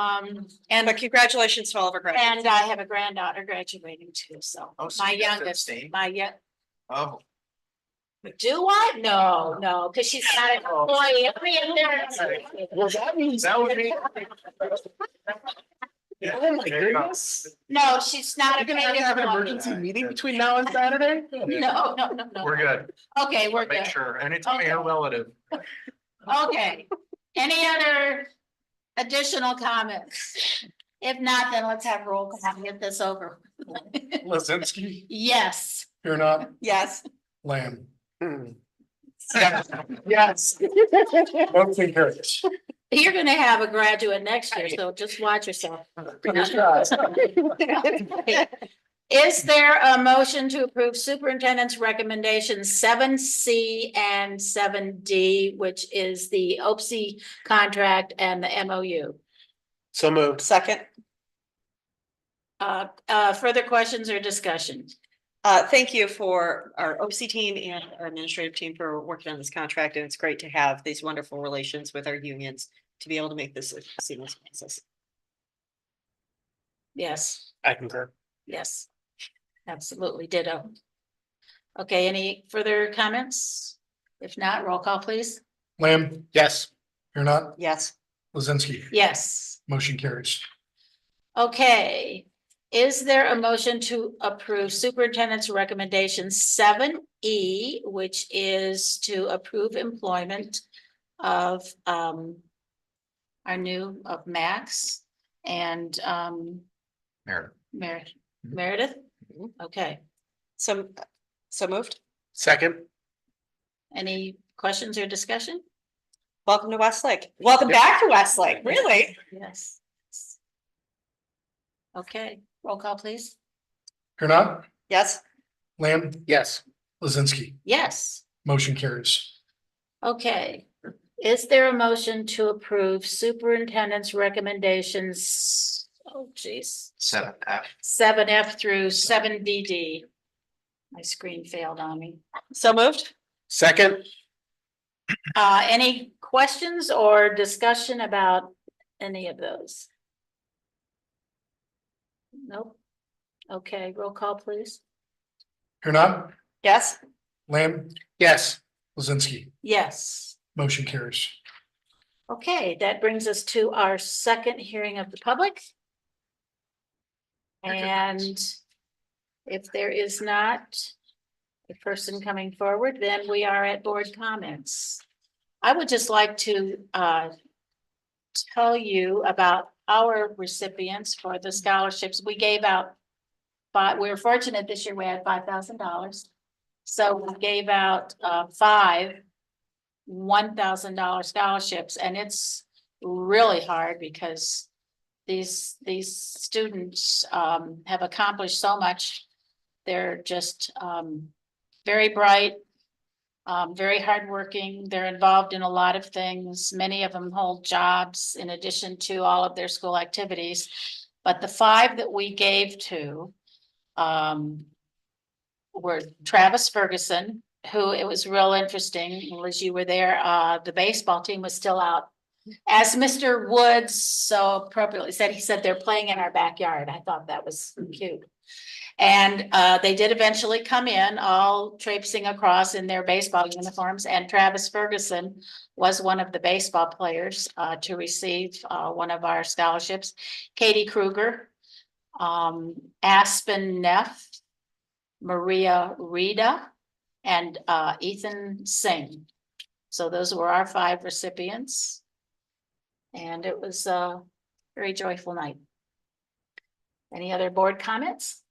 Um, And uh, congratulations to all of our graduates. and I have a granddaughter graduating too, so Oh, so my you got to youngest, abstain? my young, Oh, do I? No, no, because she's not an Oh. employee. I mean, they're- well, that means. That would be. Oh, my goodness. No, she's not. a paid employee. emergency meeting between now and Saturday? No, no, no, no. We're good. Okay, we're Make good. sure. And it's a relative. Okay. Any other additional comments? If not, then let's have roll call and get this over. Lizinski, Yes. you're not Yes. Lamb. Hmm. Yes. Motion carries. You're gonna have a graduate next year, so just watch yourself. Is there a motion to approve superintendent's recommendations seven C and seven D, which is the OPSI E contract and the MOU? So moved. Second, Uh, uh, further questions or discussion? uh, thank you for our OC team and our administrative team for working on this contract, and it's great to have these wonderful relations with our unions to be able to make this a seamless process. Yes, I concur. yes, absolutely ditto. Okay, any further comments? If not, roll call, please. Lamb, yes. You're not Yes, Lizinski. Yes. Motion carries. Okay, is there a motion to approve superintendent's recommendation seven E, which is to approve employment of um our new of Max and um Meredith. Mer- Meredith? Okay, so, so moved. Second. any questions or discussion? Welcome to Westlake. Welcome back to Westlake, really? Yes. Okay, roll call, please. You're not Yes, Lamb. Yes. Lizinski. Yes. Motion carries. Okay, is there a motion to approve superintendent's recommendations? Oh geez, Seven Uh, F. seven F through seven B D. My screen failed on me. so moved. Second. Uh, any questions or discussion about any of those? Nope. Okay, roll call please. You're not Yes, Lamb. Yes. Lizinski. Yes. Motion carries. Okay, that brings us to our second hearing of the public. And if there is not a person coming forward, then we are at board comments. I would just like to uh tell you about our recipients for the scholarships we gave out. But we were fortunate this year, we had five thousand dollars. So we gave out uh five one thousand dollar scholarships and it's really hard because these, these students um have accomplished so much. They're just um very bright, um very hardworking. They're involved in a lot of things. Many of them hold jobs in addition to all of their school activities. But the five that we gave to um were Travis Ferguson, who it was real interesting, Liz, you were there, uh, the baseball team was still out. As Mr. Woods so appropriately said, he said they're playing in our backyard. I thought that was cute. And, uh, they did eventually come in, all traipsing across in their baseball uniforms, and Travis Ferguson was one of the baseball players, uh, to receive, uh, one of our scholarships. Katie Kruger, um, Aspen Neff, Maria Rita, and uh Ethan Singh. So those were our five recipients. And it was a very joyful night. Any other board comments?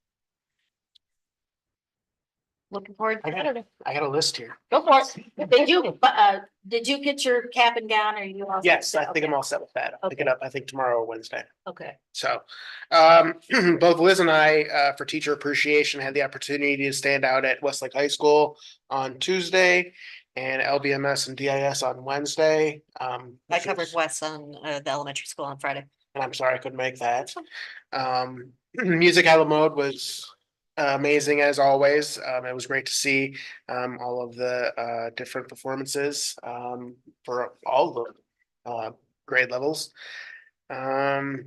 looking forward to Saturday. I got a list here. Go for it. Did you, uh, did you get your cap and gown or you? all set? Yes, I think I'm Okay, all set with that. I'll pick it up, I think tomorrow or Wednesday. Okay. So, um, both Liz and I, uh, for teacher appreciation, had the opportunity to stand out at Westlake High School on Tuesday and LBMS and DIS on Wednesday. Um, I which covered was- Wes on uh, the elementary school on Friday. and I'm sorry I couldn't make that. Um, Music Out Loud Mode was amazing as always. Um, it was great to see um all of the uh different performances um for all the uh grade levels. Um,